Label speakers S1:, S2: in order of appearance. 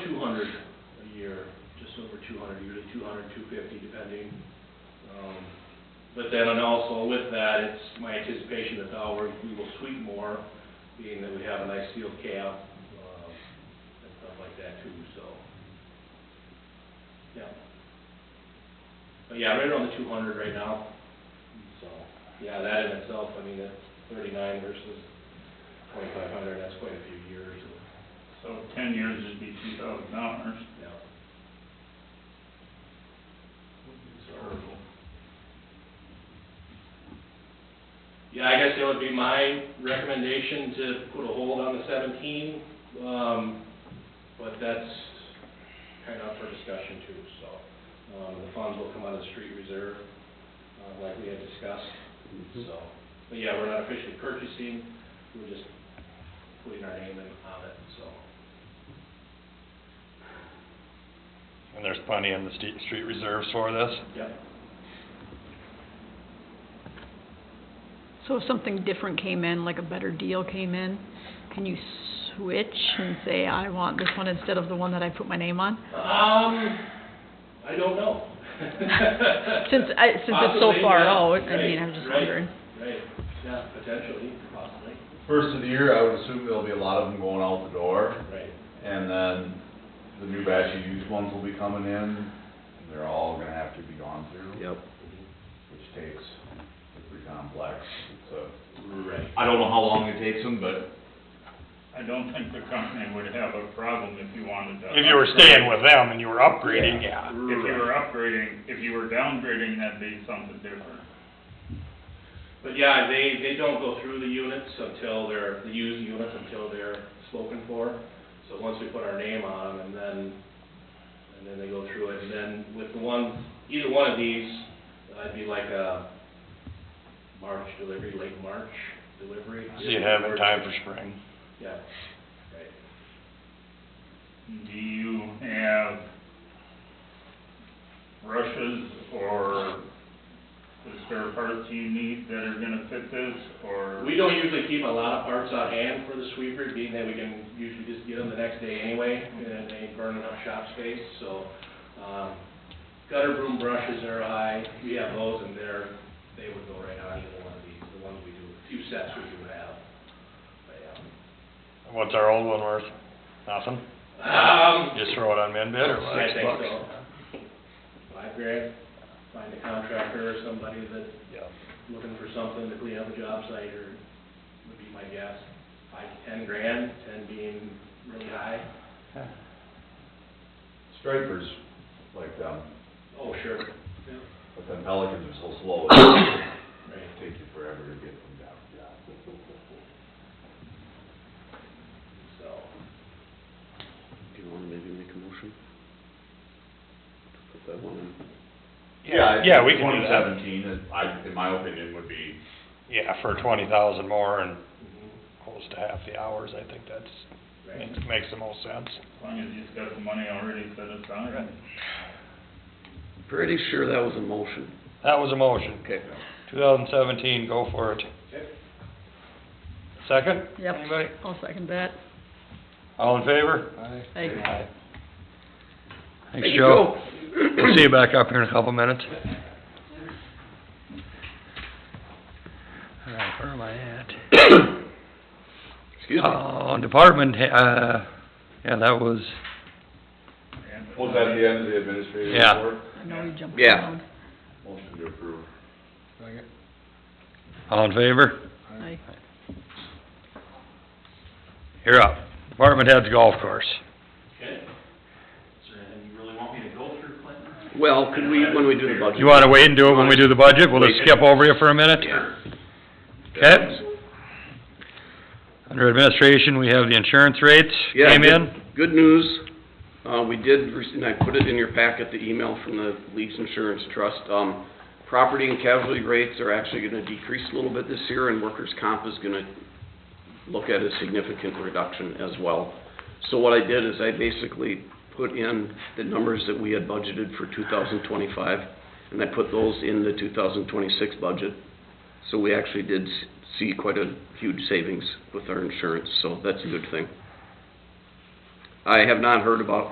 S1: hundred a year, just over two hundred, usually two hundred, two fifty, depending. Um, But then, and also with that, it's my anticipation that the hour, we will sweep more, being that we have a nice field cap, um, and stuff like that too, so. Yeah. But yeah, right around the two hundred right now, so, yeah, that in itself, I mean, that's thirty-nine versus twenty-five hundred, that's quite a few years of
S2: So ten years would be two thousand dollars.
S1: yeah. Yeah, I guess that would be my recommendation to put a hold on the seventeen, um, but that's kind of up for discussion too, so. Um, the funds will come out of the street reserve, uh, like we had discussed, so. But yeah, we're not officially purchasing, we're just putting our name in on it, so.
S3: And there's plenty in the street, street reserves for this?
S1: Yep.
S4: So if something different came in, like a better deal came in, can you switch and say, I want this one instead of the one that I put my name on?
S1: Um, I don't know.
S4: Since I, since it's so
S1: Possibly,
S4: far
S1: yeah.
S4: out, I mean, I'm
S1: Right,
S4: just
S1: right,
S4: wondering.
S1: Right, yeah, potentially, possibly,
S5: First of the year, I would assume there'll be a lot of them going out the door,
S1: right.
S5: and then the new batch of used ones will be coming in, and they're all gonna have to be gone through. Yep. Which takes, it's pretty complex, so.
S1: Right.
S5: I don't know how long it takes them, but
S2: I don't think the company would have a problem if you wanted to.
S3: If you were staying with them and you were upgrading,
S2: If
S3: yeah.
S2: you were upgrading, if you were downgrading, that'd be something different.
S1: But yeah, they, they don't go through the units until they're, the used units until they're spoken for. So once we put our name on them and then, and then they go through it. And then with the one, either one of these, uh, it'd be like a March delivery, late March delivery.
S3: So you have it time for spring.
S1: Yeah, right.
S2: Do you have brushes or the spare parts you need that are gonna fit this, or?
S1: We don't usually keep a lot of parts on hand for the sweeper, being that we can usually just get them the next day anyway, and they ain't burning up shop space, so, um, gutter broom brushes are high, we have those, and they're, they would go right on either one of these, the ones we do, a few sets we do have. But, yeah.
S3: What's our old one worth? Nothing?
S1: Um,
S3: Just throw it on min bid or what?
S1: I think so. Five grand, find a contractor or somebody that's
S3: Yeah.
S1: looking for something to clean up a job site, or would be my guess, five to ten grand, ten being really high.
S5: stripers like them,
S1: Oh, sure. Right.
S5: but then pelicans are so slow, it'll take you forever to get them down.
S1: So,
S6: Do you wanna maybe make a motion? Put that one in.
S3: Yeah, yeah, we can do
S5: Twenty
S3: that.
S5: seventeen, is- I, in my opinion, would be
S3: Yeah, for twenty thousand more and
S1: mhm,
S3: close to half the hours, I think that's,
S1: right.
S3: makes, makes the most sense.
S2: As long as you've got the money already set aside.
S6: Pretty sure that was a motion.
S3: That was a motion.
S6: Okay.
S3: Two thousand seventeen, go for it.
S1: Okay.
S3: Second?
S4: Yep.
S3: Anybody?
S4: I'll second that.
S3: All in favor?
S4: Aye.
S3: Thanks, Joe. We'll see you back up here in a couple minutes. All right, where am I at?
S6: Excuse me.
S3: Oh, department, he- uh, yeah, that was,
S2: And-
S5: Was that the end of the administrative
S3: Yeah.
S5: report?
S4: I know you jumped
S6: Yeah.
S4: around.
S5: Motion to approve.
S3: all in favor?
S4: Aye.
S3: You're up. Department heads golf course.
S1: Okay. Is there anything you really want me to go through, Clinton?
S6: Well, could we, when we do the budget?
S3: You wanna wait and do it when we do the budget? We'll just skip over you for a minute?
S6: Yeah.
S3: Okay. Under administration, we have the insurance rates
S6: Yeah,
S3: came
S6: good-
S3: in.
S6: Good news, uh, we did, rec- and I put it in your packet, the email from the Lease Insurance Trust. Um, property and casualty rates are actually gonna decrease a little bit this year, and workers' comp is gonna look at a significant reduction as well. So what I did is I basically put in the numbers that we had budgeted for two thousand twenty-five, and I put those in the two thousand twenty-six budget. So we actually did s- see quite a huge savings with our insurance, so that's a good thing. I have not heard about